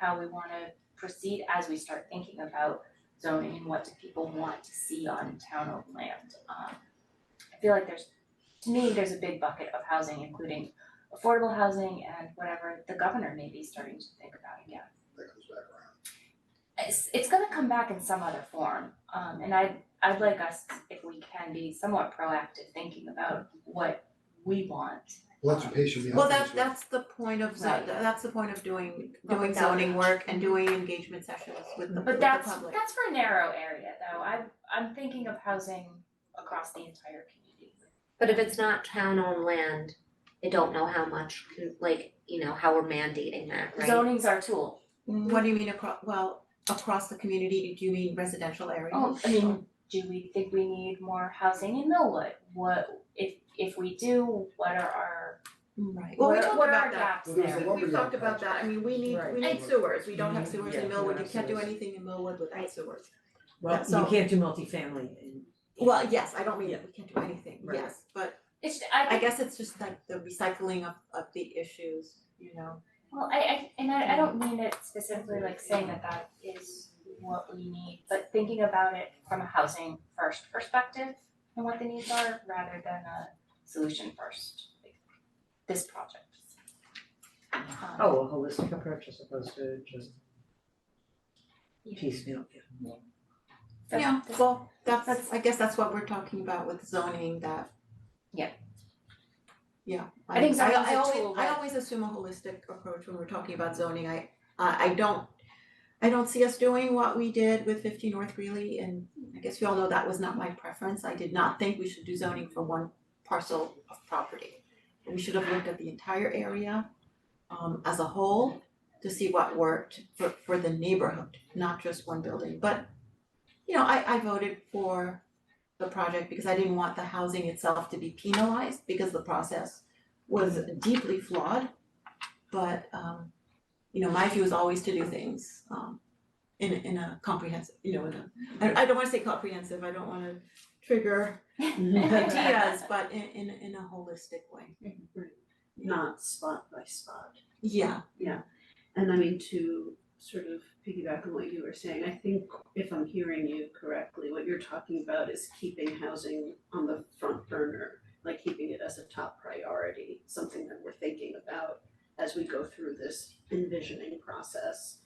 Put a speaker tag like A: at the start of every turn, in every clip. A: how we wanna proceed as we start thinking about zoning and what do people want to see on town owned land. Um, I feel like there's, to me, there's a big bucket of housing, including affordable housing and whatever the governor may be starting to think about again.
B: that comes back around.
A: It's it's gonna come back in some other form, um and I'd I'd like us, if we can, be somewhat proactive thinking about what we want.
B: Well, that's what patient meal
C: Well,
B: things
C: that
B: were.
C: that's the point of zo-
A: Right.
C: that's the point of doing
A: But
C: doing
A: without
C: zoning
A: it.
C: work and doing engagement sessions with the with
A: But
C: the
A: that's
C: public.
A: that's for a narrow area though, I I'm thinking of housing across the entire community.
D: But if it's not town owned land, I don't know how much, can- like, you know, how we're mandating that, right?
A: Zoning's our tool,
C: What do you mean across, well, across the community, do you mean residential areas?
A: oh, I mean, do we think we need more housing in Millwood? What, if if we do, what are our,
C: Right, mm, well, we
A: what are
C: talked
A: what are our
C: about that.
A: gaps
B: Well,
A: there?
B: there's a
C: We've talked about that, I mean, we need,
E: Right.
C: we need
B: And-
C: sewers, we don't have Mm-hmm. sewers
E: Yeah,
C: in Millwood,
E: no
C: you can't do
B: sewers.
C: anything in Millwood without
D: Right.
C: sewers.
E: Well,
C: So-
E: you can't do multifamily in.
C: Well, yes, I don't mean
E: Yeah.
C: that we can't do anything,
E: Right.
C: yes, but
A: It's, I
C: I
A: think
C: guess it's just like the recycling of of the issues, you know.
A: Well, I I and
C: Mm.
A: I I don't mean it specifically like saying that that is what we need, but thinking about it from a housing first perspective and what the needs are rather than a solution first, like this project. Um,
E: Oh, a holistic approach as opposed to just
A: Yeah.
E: piecemeal, yeah.
A: that's-
C: Yeah,
A: that's-
C: well, that's,
A: that's-
C: I guess that's what we're talking about with zoning that.
A: Yeah.
C: Yeah,
A: I
C: I
A: think
C: think I
A: zoning's a
C: I
A: tool
C: always, I
A: that-
C: always assume a holistic approach when we're talking about zoning, I uh, I I don't. I don't see us doing what we did with fifty North Greeley and I guess you all know that was not my preference, I did not think we should do zoning for one parcel of property. We should have looked at the entire area um as a whole to see what worked for for the neighborhood, not just one building, but you know, I I voted for the project because I didn't want the housing itself to be penalized because the process was deeply flawed. But um, you know, my view is always to do things um in a in a comprehensive, you know, in a, I I don't wanna say comprehensive, I don't wanna trigger ideas, but in in in a holistic way.
F: not spot by spot.
C: Yeah,
F: And I mean, to sort of piggyback on what you were saying, I think if I'm hearing you correctly, what you're talking about is keeping housing on the front burner, like keeping it as a top priority, something that we're thinking about as we go through this envisioning process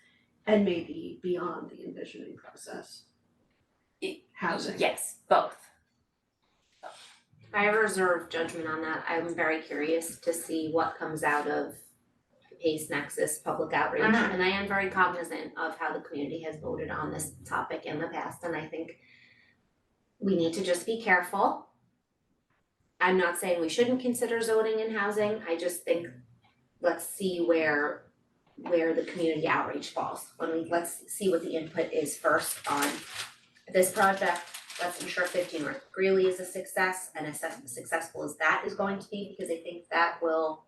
F: and maybe beyond the envisioning process.
A: It-
F: Housing.
A: Yes, both.
D: I reserve judgment on that, I'm very curious to see what comes out of Pace Nexus public outreach. And I am very cognizant of how the community has voted on this topic in the past, and I think we need to just be careful. I'm not saying we shouldn't consider zoning in housing, I just think let's see where where the community outreach falls. When we, let's see what the input is first on this project, let's ensure fifteen North Greeley is a success and as suc- successful as that is going to be, because I think that will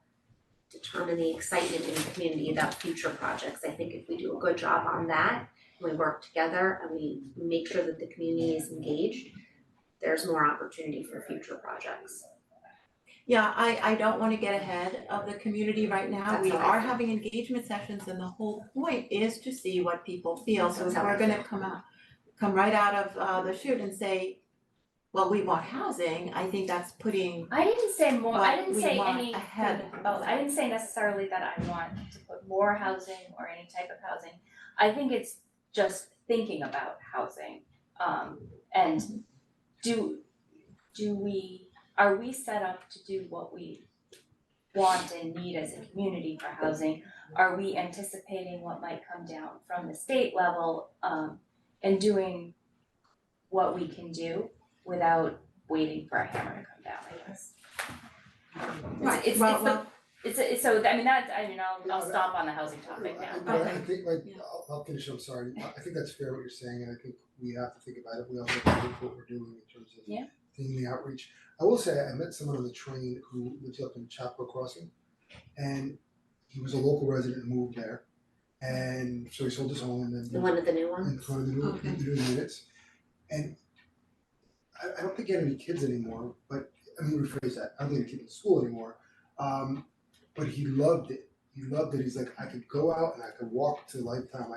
D: determine the excitement in the community about future projects. I think if we do a good job on that, we work together and we make sure that the community is engaged, there's more opportunity for future projects.
C: yeah, I I don't wanna get ahead of the community right now,
D: That's
C: we
D: how I
C: are
D: feel.
C: having engagement sessions and the whole point is to see what people feel, so if
D: That's how I
C: we're gonna
D: feel.
C: come out, come right out of uh the chute and say, well, we want housing, I think that's putting,
A: I didn't say more, I
C: What
A: didn't
C: we
A: say
C: want
A: any,
C: ahead of
A: oh, I
C: that.
A: didn't say necessarily that I want to put more housing or any type of housing. I think it's just thinking about housing, um, and do, do we, are we set up to do what we want and need as a community for housing? Are we anticipating what might come down from the state level, um, and doing what we can do without waiting for a hammer to come down, I guess?
C: right,
A: it's-
C: well,
A: it's the-
C: well,
A: It's a, it's so, I mean, that, I mean, I'll, I'll
B: Yeah,
A: stomp on the housing topic
B: I-
A: now.
B: I- I
C: Okay.
B: think like,
C: Yeah.
B: I'll I'll finish, I'm sorry, I I think that's fair what you're saying, and I think we have to think about it, we all have to look what we're doing in terms of
A: Yeah.
B: doing the outreach. I will say, I met someone on the train who lives up in Chapel Crossing, and he was a local resident and moved there. And so he sold his home and then
D: The one of the new ones?
B: in front of the new,
C: Okay.
B: the new units. And I I don't think he had any kids anymore, but I mean rephrase that, I don't think he had kids in school anymore. Um but he loved it, he loved it, he's like, I could go out and I could walk to Lifetime,